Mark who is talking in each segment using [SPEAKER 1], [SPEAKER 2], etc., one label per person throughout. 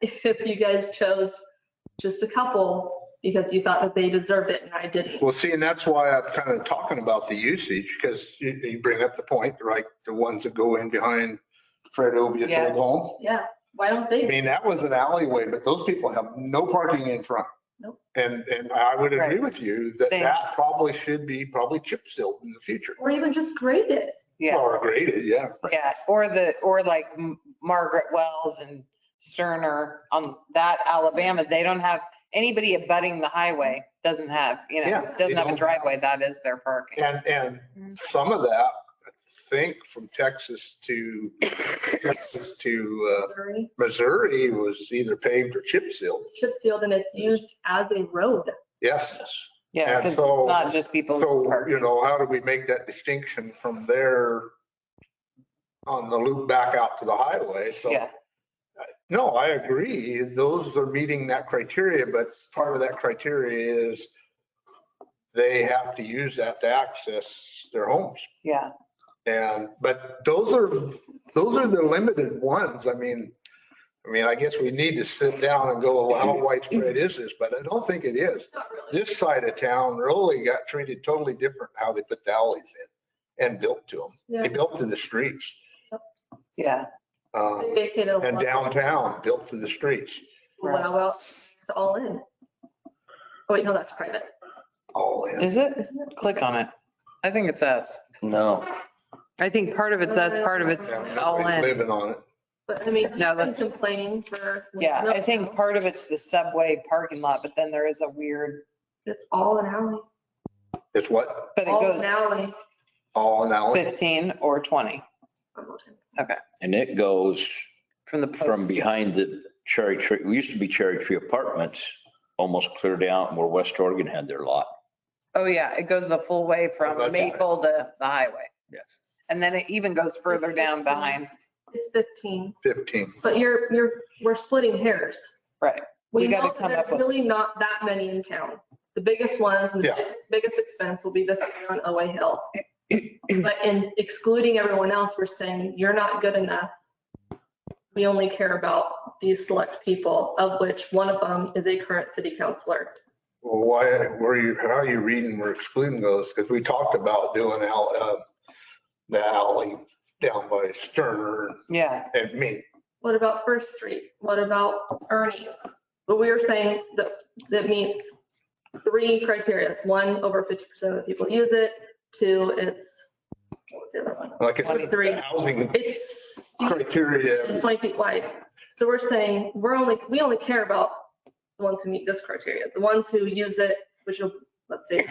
[SPEAKER 1] if you guys chose just a couple because you thought that they deserved it and I didn't.
[SPEAKER 2] Well, see, and that's why I'm kind of talking about the usage, because you, you bring up the point, right? The ones that go in behind Fred Ovia's
[SPEAKER 3] Yeah.
[SPEAKER 2] old home.
[SPEAKER 1] Yeah, why don't
[SPEAKER 2] I
[SPEAKER 1] they?
[SPEAKER 2] mean, that was an alleyway, but those people have no parking in front.
[SPEAKER 1] Nope.
[SPEAKER 2] And, and I would agree
[SPEAKER 3] Right.
[SPEAKER 2] with you that
[SPEAKER 3] Same.
[SPEAKER 2] that probably should be probably chip sealed in the future.
[SPEAKER 1] Or even just grade it.
[SPEAKER 3] Yeah,
[SPEAKER 2] Or graded, yeah.
[SPEAKER 3] yeah. Or the, or like M- Margaret Wells and Sterner on that Alabama, they don't have, anybody abutting the highway doesn't have, you know,
[SPEAKER 2] Yeah, they
[SPEAKER 3] doesn't have a
[SPEAKER 2] don't.
[SPEAKER 3] driveway. That is their parking.
[SPEAKER 2] And,
[SPEAKER 3] Mm-hmm.
[SPEAKER 2] and some of that, I think from Texas to, Texas to uh,
[SPEAKER 1] Missouri.
[SPEAKER 2] Missouri was either paved or chip sealed.
[SPEAKER 1] It's chip sealed and it's used as a road.
[SPEAKER 2] Yes.
[SPEAKER 3] Yeah,
[SPEAKER 2] And
[SPEAKER 3] 'cause it's
[SPEAKER 2] so-
[SPEAKER 3] not just people who
[SPEAKER 2] So,
[SPEAKER 3] park.
[SPEAKER 2] you know, how do we make that distinction from there on the loop back out to the highway? So,
[SPEAKER 3] Yeah,
[SPEAKER 2] no, I agree. Those are meeting that criteria, but part of that criteria is they have to use that to access their homes.
[SPEAKER 3] yeah.
[SPEAKER 2] And, but those are, those are the limited ones. I mean, I mean, I guess we need to sit down and go, well, how widespread is this? But I don't think it is.
[SPEAKER 1] It's not really.
[SPEAKER 2] This side of town really got treated totally different how they put the alleys in and built to them. They
[SPEAKER 1] Yeah.
[SPEAKER 2] built to the streets.
[SPEAKER 3] Yeah,
[SPEAKER 2] uh,
[SPEAKER 1] They make it a
[SPEAKER 2] And downtown, built to the streets.
[SPEAKER 1] Wow, well, it's all in. Oh wait, no, that's private,
[SPEAKER 2] All in.
[SPEAKER 3] is it?
[SPEAKER 1] isn't it?
[SPEAKER 3] Click on it. I think it's us.
[SPEAKER 4] No,
[SPEAKER 3] I think part of it's us, part of it's
[SPEAKER 2] Yeah,
[SPEAKER 3] all in.
[SPEAKER 2] Living on it.
[SPEAKER 1] But I mean, he's
[SPEAKER 3] No,
[SPEAKER 1] been
[SPEAKER 3] that's-
[SPEAKER 1] complaining for.
[SPEAKER 3] Yeah, I think part of it's the subway parking lot, but then there is a weird,
[SPEAKER 1] It's all an alley,
[SPEAKER 2] It's what?
[SPEAKER 3] but it
[SPEAKER 1] all
[SPEAKER 3] goes
[SPEAKER 1] an alley.
[SPEAKER 2] All in alley.
[SPEAKER 3] 15 or 20
[SPEAKER 4] and it goes
[SPEAKER 3] from the
[SPEAKER 4] from
[SPEAKER 3] post.
[SPEAKER 4] behind the cherry tree, we used to be cherry tree apartments, almost cleared out where West Oregon had their lot.
[SPEAKER 3] Oh, yeah, it goes the full way
[SPEAKER 2] Okay.
[SPEAKER 3] from Maple to the highway.
[SPEAKER 4] Yes.
[SPEAKER 3] And then it even goes further down behind,
[SPEAKER 1] It's 15,
[SPEAKER 2] 15.
[SPEAKER 1] but you're, you're, we're splitting hairs.
[SPEAKER 3] right.
[SPEAKER 1] We
[SPEAKER 3] We gotta
[SPEAKER 1] know that
[SPEAKER 3] come
[SPEAKER 1] there's
[SPEAKER 3] up with-
[SPEAKER 1] really not that many in town. The biggest ones and the
[SPEAKER 2] Yeah.
[SPEAKER 1] biggest- biggest expense will be the three on OA Hill. But in excluding everyone else, we're saying you're not good enough. We only care about these select people, of which one of them is a current city councillor.
[SPEAKER 2] Well, why, were you, how are you reading we're excluding those? Because we talked about doing al- uh, the alley down by Sterner
[SPEAKER 3] Yeah,
[SPEAKER 2] and me.
[SPEAKER 1] What about First Street? What about Ernie's? But we were saying that, that meets three criteria. It's one, over 50% of the people use it. Two, it's, what was the other one?
[SPEAKER 2] Like I said,
[SPEAKER 1] Twenty-three.
[SPEAKER 2] the housing
[SPEAKER 1] It's steep. It's
[SPEAKER 2] criteria.
[SPEAKER 1] 20 feet wide. So we're saying, we're only, we only care about the ones who meet this criteria, the ones who use it, which will, let's say,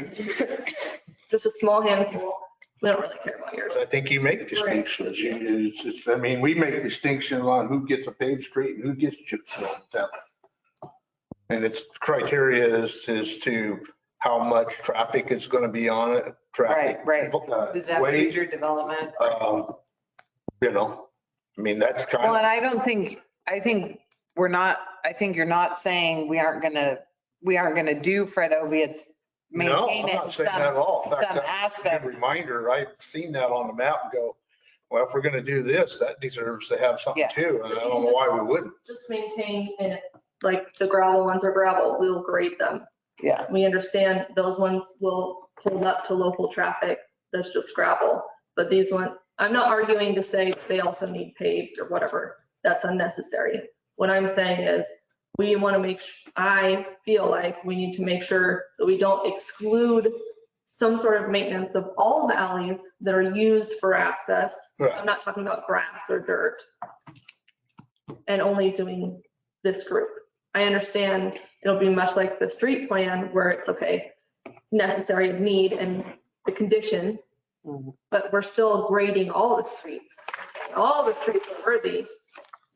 [SPEAKER 1] just a small handful. We don't really care about yours.
[SPEAKER 2] I think you make distinctions. You- it's just- I mean, we make distinction on who gets a paved street and who gets chip sealed. That's- And its criteria is, is to how much traffic is going to be on it, traffic.
[SPEAKER 3] Right, right.
[SPEAKER 2] uh,
[SPEAKER 3] is that
[SPEAKER 2] weight,
[SPEAKER 3] future development?
[SPEAKER 2] um, You know, I mean, that's kind
[SPEAKER 3] Well,
[SPEAKER 2] of,
[SPEAKER 3] and I don't think, I think we're not, I think you're not saying we aren't gonna, we aren't gonna do Fred Oviatt's
[SPEAKER 2] no,
[SPEAKER 3] maintain
[SPEAKER 2] I'm
[SPEAKER 3] it in
[SPEAKER 2] not saying that at
[SPEAKER 3] some,
[SPEAKER 2] all. In fact,
[SPEAKER 3] some
[SPEAKER 2] that's a
[SPEAKER 3] aspect.
[SPEAKER 2] good Reminder, I've seen that on the map and go, well, if we're going to do this, that deserves to have something
[SPEAKER 3] Yeah.
[SPEAKER 2] too. And I don't know why we wouldn't.
[SPEAKER 1] Just maintain and like the gravel ones are gravel, we'll grade them.
[SPEAKER 3] Yeah,
[SPEAKER 1] We understand those ones will hold up to local traffic. That's just gravel. But these ones, I'm not arguing to say they also need paved or whatever. That's unnecessary. What I'm saying is we want to make, su- I feel like we need to make sure that we don't exclude some sort of maintenance of all the alleys that are used for access.
[SPEAKER 2] Right.
[SPEAKER 1] I'm not talking about grass or dirt. And only doing this group. I understand it'll be much like the street plan where it's okay, necessary of need and the condition.
[SPEAKER 3] Mhm.
[SPEAKER 1] But we're still grading all the streets. All the streets are worthy.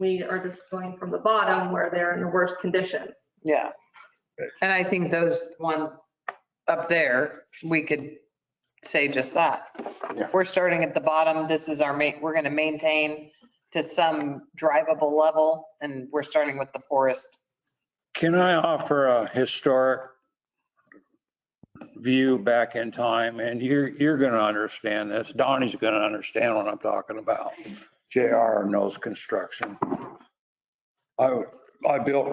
[SPEAKER 1] We are just going from the bottom where they're in the worst condition.
[SPEAKER 3] yeah. And I think those ones up there, we could say just that.
[SPEAKER 2] Yeah.
[SPEAKER 3] We're starting at the bottom. This is our main, we're gonna maintain to some drivable level and we're starting with the poorest.
[SPEAKER 5] Can I offer a historic view back in time? And you're, you're going to understand this. Donnie's going to understand what I'm talking about. JR knows construction. I, I built